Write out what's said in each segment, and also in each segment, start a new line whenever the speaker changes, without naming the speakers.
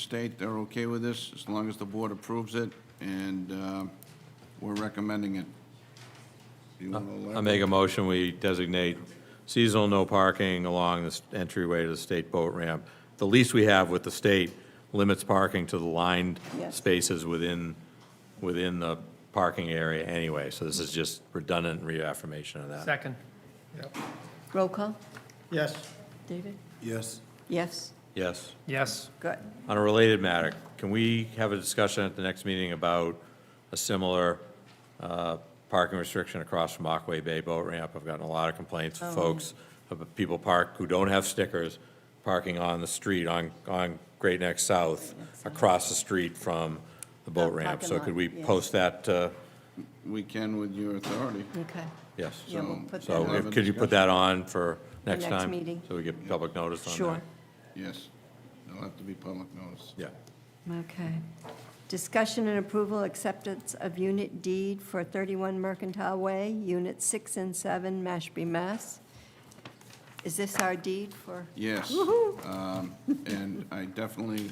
state they're okay with this, as long as the board approves it, and uh, we're recommending it. Do you want to
Uh, I
elaborate?
make a motion, we designate seasonal no parking along this entryway to the state boat ramp. The lease we have with the state limits parking to the lined
Yes.
spaces within, within the parking area anyway, so this is just redundant reaffirmation of that.
Second.
Roll call,
Yes.
David?
Yes.
Yes,
Yes.
Yes.
good.
On a related matter, can we have a discussion at the next meeting about a similar uh, parking restriction across from Aquay Bay Boat Ramp? I've gotten a lot of complaints
Oh.
from folks, of people park, who don't have stickers, parking on the street on, on Great Neck South, across the street from the boat
The
ramp.
parking
So
lot,
could we
yeah.
post that, uh,
We can with your authority.
Okay.
yes?
Yeah, we'll put that
So
Have
on.
a
if- could you put that on for next
next
time?
meeting.
So we get public notice on that?
Sure.
Yes, it'll have to be public notice.
Yeah.
Okay. Discussion and approval, acceptance of unit deed for 31 Mercantile Way, Unit 6 and 7, Mashpee, Mass. Is this our deed for?
Yes.
Woo-hoo.
um, And I definitely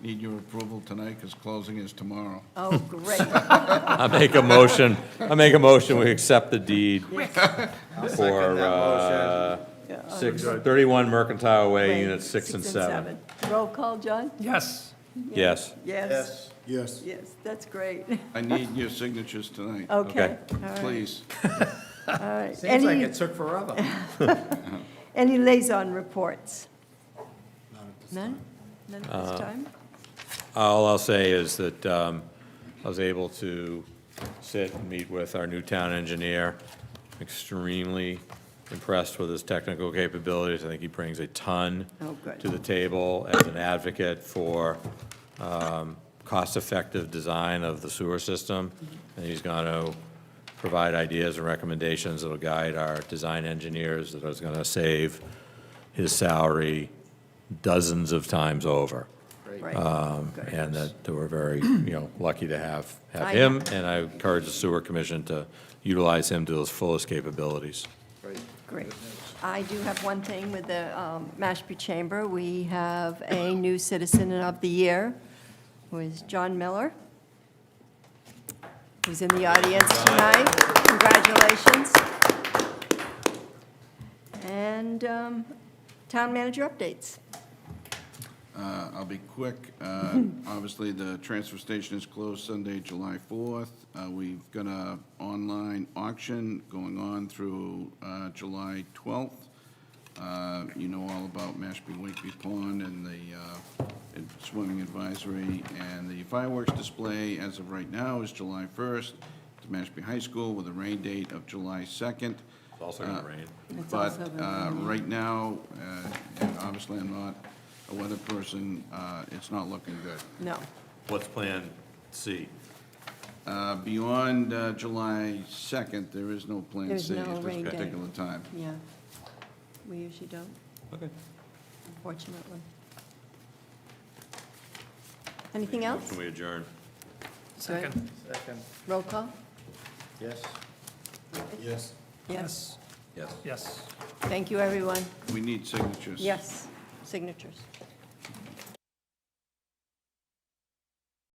need your approval tonight, because closing is tomorrow.
Oh, great.
I make a motion, I make a motion, we accept the deed for uh, six- 31 Mercantile Way, Units 6 and 7.
seven. Roll call, John?
Yes.
Yes,
Yes.
Yes.
Yes, that's great.
I need your signatures tonight,
Okay.
Okay. Oh, all right,
please.
all right.
Seems like
Any-
it took forever.
Any liaison reports? None? None at this time?
all I'll say is that um, I was able to sit and meet with our new town engineer. Extremely impressed with his technical capabilities. I think he brings a ton
Oh, good.
to the table as an advocate for um, cost-effective design of the sewer system.
Mm-hmm.
And he's going to provide ideas and recommendations that'll guide our design engineers that is going to save his salary dozens of times over.
Right.
Um,
Good.
And that that we're very, you know, lucky to have, have
I
him. And I encourage the sewer commission to utilize him to his fullest capabilities.
Great. I do have one thing with the um, Mashpee Chamber. We have a new citizen of the year, who is John Miller, who's in the audience tonight. Congratulations. And um, town manager updates.
Uh, I'll be quick. Uh, Obviously, the transfer station is closed Sunday, July 4th. Uh, We've got a online auction going on through uh, July 12th. Uh, You know all about Mashpee Wakeby Pond and the uh, and swimming advisory, and the fireworks display as of right now is July 1st to Mashpee High School with a rain date of July 2nd.
It's also going to rain.
It's
But
also the-
uh, right now, uh, and obviously I'm not a weather person, uh, it's not looking good.
No.
What's Plan C?
Uh, Beyond uh, July 2nd, there is no Plan
There's
C
no
at
rain
this
day.
particular time.
Yeah. We usually don't. Unfortunately. Anything else?
Can we adjourn?
Second. Second.
Roll call?
Yes. Yes.
Yes.
Yes.
Yes.
Thank you, everyone.
We need signatures.
Yes, signatures.